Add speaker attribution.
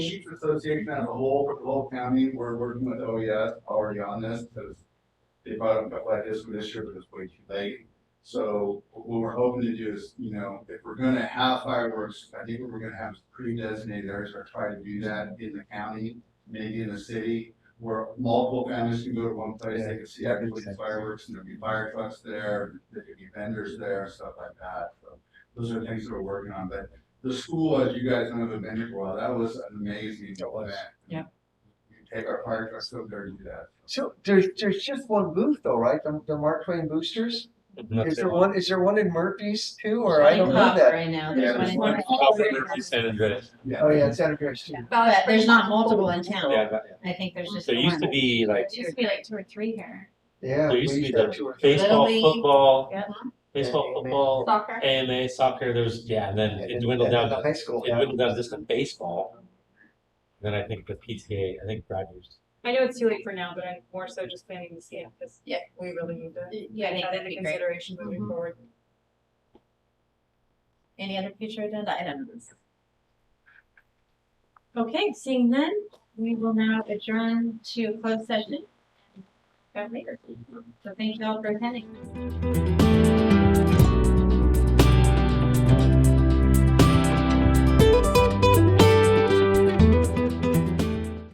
Speaker 1: Chiefs Association as a whole, for the whole county, we're working with OES already on this, because they brought up like this one this year, but it's way too late. So what we're hoping to do is, you know, if we're gonna have fireworks, I think what we're gonna have is pre-designated areas, or try to do that in the county, maybe in the city, where multiple families can go to one place, they can see everybody's fireworks, and there'll be fire trucks there, there could be vendors there, stuff like that, so. Those are things that we're working on, but the school, as you guys know, the Vineyard Wild, that was an amazing event.
Speaker 2: Yeah.
Speaker 1: You take our fire trucks over there and do that.
Speaker 3: So there's there's just one booth though, right? The, the Mark Twain Boosters. Is there one? Is there one in Murphy's too? Or I don't know
Speaker 4: Not
Speaker 3: that.
Speaker 4: Right now,
Speaker 1: Yeah,
Speaker 4: there's
Speaker 1: there's
Speaker 4: one in-
Speaker 5: San Andreas.
Speaker 1: Yeah.
Speaker 3: Oh yeah, it's Santa Cruz too.
Speaker 4: but there's not multiple in
Speaker 5: Yeah,
Speaker 4: town.
Speaker 5: that-
Speaker 4: I think there's just
Speaker 5: There
Speaker 4: the
Speaker 5: used to
Speaker 4: one.
Speaker 5: be like
Speaker 6: It used to be like two or three here.
Speaker 3: Yeah.
Speaker 5: There used
Speaker 3: we
Speaker 5: to be
Speaker 3: have
Speaker 5: the
Speaker 3: two or three.
Speaker 5: baseball,
Speaker 4: Little league.
Speaker 5: football,
Speaker 4: Yeah.
Speaker 5: baseball,
Speaker 3: Yeah,
Speaker 5: football,
Speaker 6: Soccer.
Speaker 5: AMA, soccer. There's yeah, and then it
Speaker 3: And-
Speaker 5: dwindled
Speaker 3: and
Speaker 5: down.
Speaker 3: the
Speaker 5: To,
Speaker 3: High school.
Speaker 5: it dwindled down just to baseball. Then I think the PTA. I think Rogers.
Speaker 7: I know it's too late for now, but I'm more so just planning to see it because
Speaker 4: Yeah.
Speaker 7: we really need to
Speaker 4: Yeah, I
Speaker 7: get
Speaker 4: think
Speaker 7: that
Speaker 4: that'd
Speaker 7: into
Speaker 4: be great.
Speaker 7: consideration moving
Speaker 4: Mhm.
Speaker 7: forward.
Speaker 4: Any other future agenda items?
Speaker 6: Okay, seeing none, we will now adjourn to closed session. Go later.
Speaker 4: So thank you all for attending.